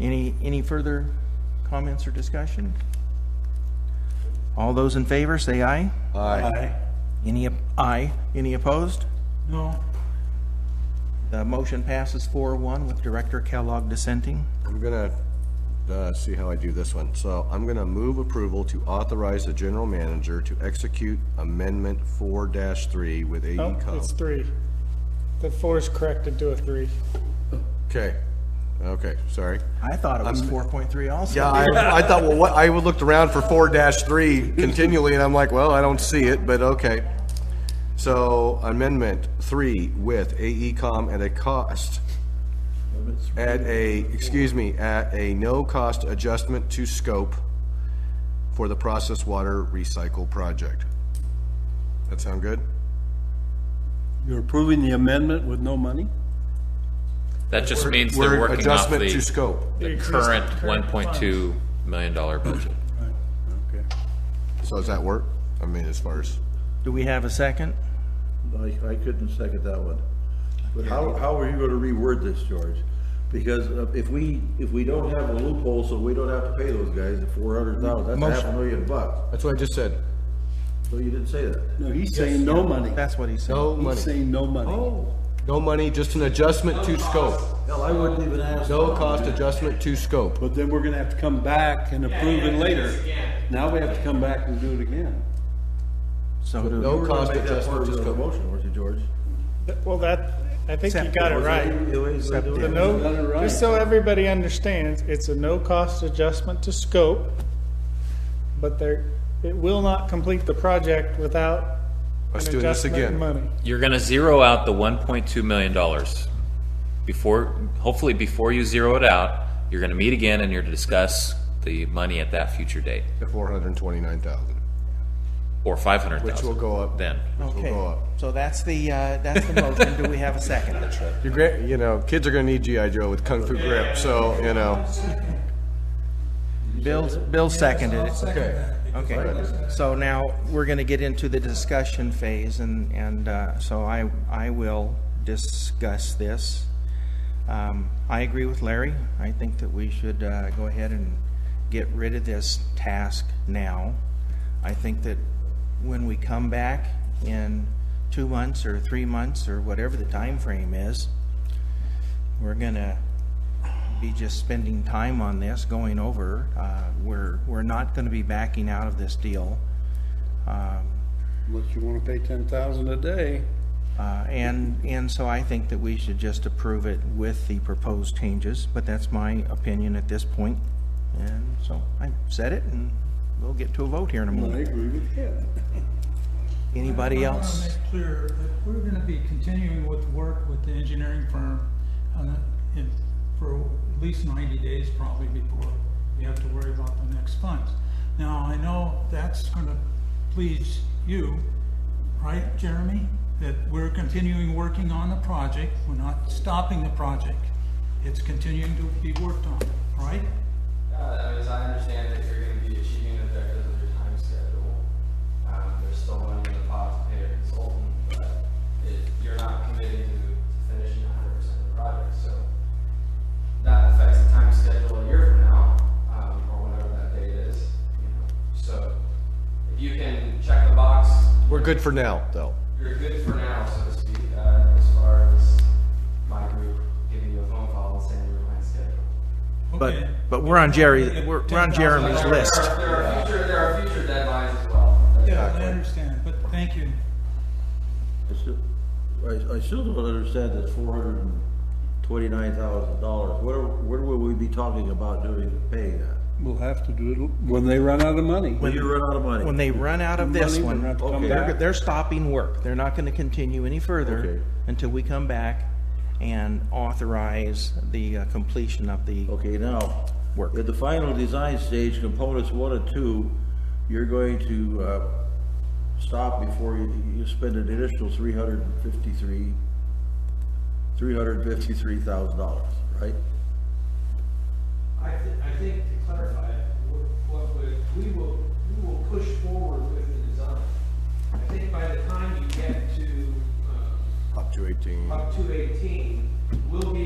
Any, any further comments or discussion? All those in favor, say aye. Aye. Any, op- aye. Any opposed? No. The motion passes 4-1 with Director Kellogg dissenting. I'm gonna, uh, see how I do this one. So I'm gonna move approval to authorize the general manager to execute amendment four three with E AE Oh, it's Comp. three. The four is corrected to a three. Okay, okay, sorry. I thought it was 4.3 also. Yeah, I, I thought, well, what, I looked around for four three continually, and I'm like, well, I don't see it, but okay. So amendment three with AE Com at a cost, at a, excuse me, at a no-cost adjustment to scope for the process water recycle project. That sound good? You're approving the amendment with no money? That just means they're Word working off Adjustment to the, scope. the Increase the current one current point two million dollar budget. Right, okay. So does that work? I mean, as far as, Do we have a second? I, I couldn't second that one. But how, how are you gonna reword this, George? Because uh, if we, if we don't have a loophole, so we don't have to pay those guys the four hundred thousand, that's half a Motion. million bucks. that's what I just said. So you didn't say that. No, he's saying no money. That's what he said. No He's money, saying no money. Oh, no money, just an adjustment to scope. hell, I wouldn't even ask. No cost adjustment to scope. But then we're gonna have to come back and approve it later. Now we have to come back and do it again. So do- No We're gonna cost make that adjustment part of to the scope. motion, weren't you, George? Th- Well, that, I think you Except got it Was that right. the way they do it? The Got it no, right. just so everybody understands, it's a no-cost adjustment to scope, but there, it will not complete the project without Let's an do this adjustment in again. money. You're gonna zero out the one point two million dollars. Before, hopefully before you zero it out, you're gonna meet again and you're to discuss the money at that future date, To four hundred and twenty-nine thousand, or five hundred which will thousand go up. then. Which will go Okay, up. so that's the, uh, that's the motion. Do we have a second? Your grand, you know, kids are gonna need GI Joe with kung fu grip, so, you know. Bill, Bill seconded it. Okay. Okay, so now we're going to get into the discussion phase, and, and uh, so I, I will discuss this. Um, I agree with Larry. I think that we should uh, go ahead and get rid of this task now. I think that when we come back in two months or three months or whatever the time frame is, we're gonna be just spending time on this, going over. Uh, we're, we're not gonna be backing out of this deal. Um, Unless you wanna pay ten thousand a day. uh, and, and so I think that we should just approve it with the proposed changes, but that's my opinion at this point. And so I said it and we'll get to a vote here in a I moment. agree with you. Anybody I else? want to make clear that we're gonna be continuing with work with the engineering firm on the- in- for at least ninety days probably before we have to worry about the next funds. Now, I know that's gonna please you, right, Jeremy? That we're continuing working on the project, we're not stopping the project. It's continuing to be worked on, right? Yeah, I mean, as I understand it, you're gonna be achieving objectives of your time schedule. Um, there's still money in the pot to pay a consultant, but it, you're not committing to to finishing hundred percent of the project, so that affects the time schedule a year from now, um, or whenever that date is, you know, so if you can check the box, We're good for now, though. you're good for now, so to speak, uh, as far as my group giving you a phone call and saying you're behind schedule. But, Okay. but we're on Jerry, we're we're on Jeremy's There are- list. There are future, there are future deadlines as well. Yeah, I understand, but thank you. I still- I, I still don't understand this four hundred and twenty-nine thousand dollars. Where, where will we be talking about doing, paying that? We'll have to do it when they run out of money. When you run out of money? When they run out of this Money, one, they're gonna have to come Okay. They're, back. they're stopping work. They're not gonna continue any further Okay. until we come back and authorize the uh, completion of the, Okay, now, Work. at the final design stage, components one and two, you're going to, uh, stop before you, you spend an initial three hundred and fifty-three, three hundred and fifty-three thousand dollars, right? I, thi- I think to clarify, it, wh- what we, we will, we will push forward with the design. I think by the time you get to, um, Up to eighteen. up to eighteen, we'll be